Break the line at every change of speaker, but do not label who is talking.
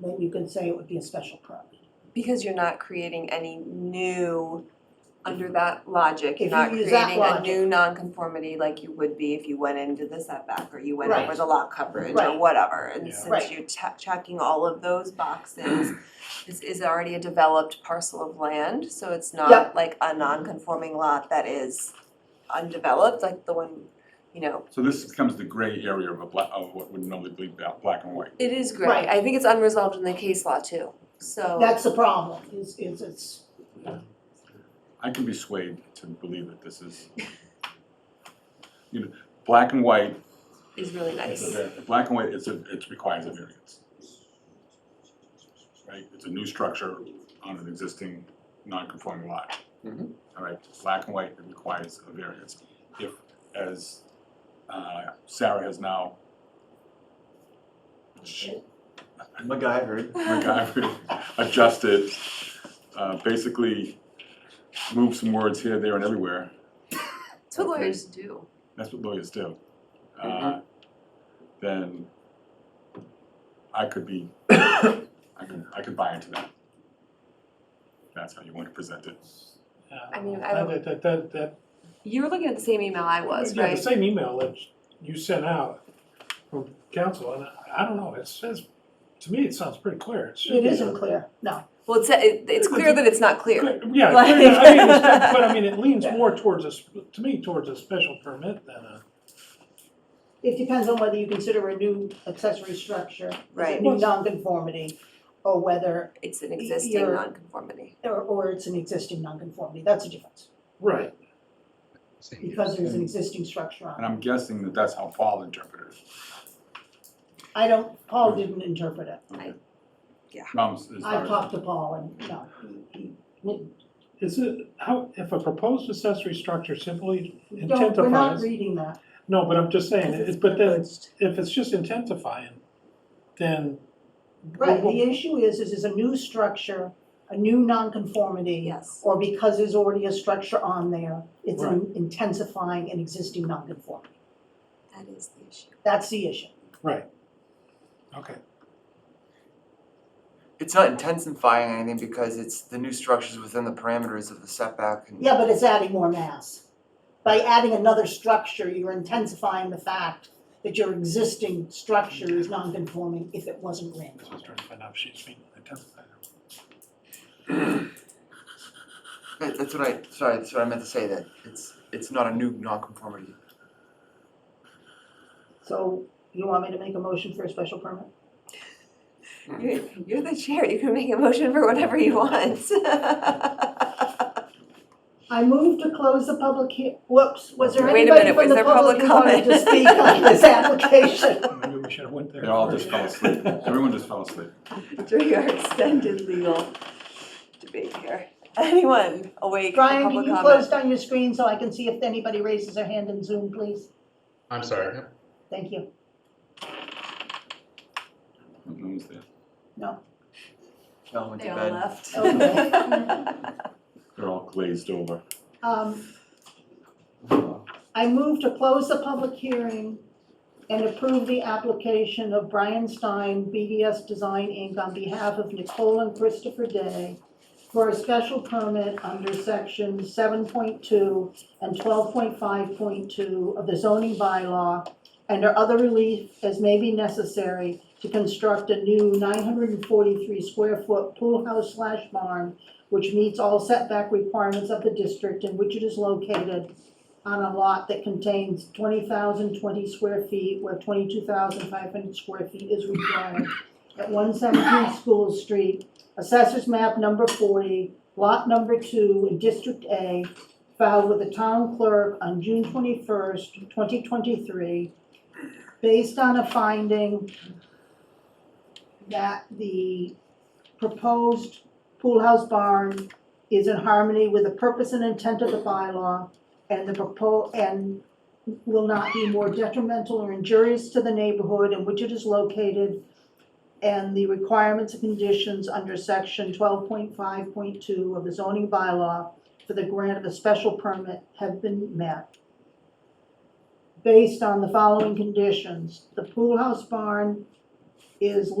then you can say it would be a special permit.
Because you're not creating any new, under that logic, you're
If
not
you use that
creating a
logic.
new nonconformity like you would be if you went into the setback or you went
Right.
over the lot coverage or
Right.
whatever. And
Yeah.
Right.
since you're che- checking all of those boxes, this is already a developed parcel of land, so it's
Yep.
not like a non-conforming lot that is undeveloped, like the one, you know,
So this becomes the gray area of a black, of what would normally be ba- black and white.
it is
Right.
great. I think it's unresolved in the case law too, so.
That's the problem, is, is it's,
I can be swayed to believe that this is, you know, black and white,
Is really
is a
nice.
var- black and white, it's a, it requires a variance. Right, it's a new structure on an existing non-conforming lot.
Mhm.
All right, black and white, it requires a variance. If, as uh, Sarah has now
MacGyver.
MacGyver adjusted, uh, basically moved some words here, there, and everywhere.
That's what lawyers do.
That's what lawyers do. Uh, Then I could be, I could, I could buy into that. That's how you want to present it.
I mean, I
Uh,
don't-
That, that, that, that.
You were looking at the same email I was,
Yeah, the
right?
same email that you sent out from council, and I, I don't know, it says, to me, it sounds pretty clear. should
it
be-
isn't clear, no.
Well, it's, uh, it- it's clear that it's not clear.
Clear- Yeah,
Like-
clear, I mean, it's not- but I mean, it leans more towards a, sp- to me, towards a special permit than a,
It depends on whether you consider a new accessory structure, a
Right.
new nonconformity, or whether,
It's an existing
You're-
nonconformity.
or, or it's an existing nonconformity, that's a difference.
right,
Because there's an existing structure on
And
it.
I'm guessing that that's how Paul interpreted it.
I don't, Paul didn't interpret it.
Okay.
I- yeah.
No, I'm s- as far
I've
as-
talked to Paul and, no, he, he,
Is it, how, if a proposed accessory structure simply
don't, we're not
intensifies,
reading that.
no, but I'm just saying,
Because
it- but then,
privileged.
if it's just intensifying, then.
Right,
Well,
the issue is, is it's a new structure, a new nonconformity.
Yes.
Or because there's already a structure on there, it's
Right.
intensifying an existing nonconformity.
That is the issue.
That's the issue.
Right. Okay.
It's not intensifying anything because it's the new structures within the parameters of the setback and.
Yeah, but it's adding more mass. By adding another structure, you're intensifying the fact that your existing structure is nonconforming if it wasn't
I
random.
was trying to find out if she's being intensified.
That- That's what I, sorry, that's what I meant to say, that it's, it's not a new nonconformity.
So you want me to make a motion for a special permit?
You're, you're the chair. You can make a motion for whatever you want.
I move to close the public hea- whoops, was there
Wait a
anybody from
minute, was
the
there
public who
public
wanted to
comment?
speak on this application?
Maybe we should have went there.
They all just fell
first.
asleep. Everyone just fell asleep.
During our extended legal debate here. Anyone awake for
Brian, can
public
you
comment?
close down your screen so I can see if anybody raises their hand in Zoom, please?
I'm sorry.
Thank you.
No one's there.
No, went to
They all
bed.
left.
Okay.
They're all glazed over.
Um, I move to close the public hearing and approve the application of Brian Stein, BDS Design Inc., on behalf of Nicole and Christopher Day for a special permit under section seven point two and twelve point five point two of the zoning bylaw and or other relief as may be necessary to construct a new nine hundred and forty-three square foot pool house slash barn which meets all setback requirements of the district in which it is located on a lot that contains twenty thousand twenty square feet, where twenty-two thousand five hundred square feet is required at one seventeen School Street, assessors map number forty, lot number two, in District A, filed with the town clerk on June twenty-first, twenty twenty-three, based on a finding that the proposed pool house barn is in harmony with the purpose and intent of the bylaw and the propo, and will not be more detrimental or injurious to the neighborhood in which it is located and the requirements and conditions under section twelve point five point two of the zoning bylaw for the grant of a special permit have been met. Based on the following conditions, the pool house barn is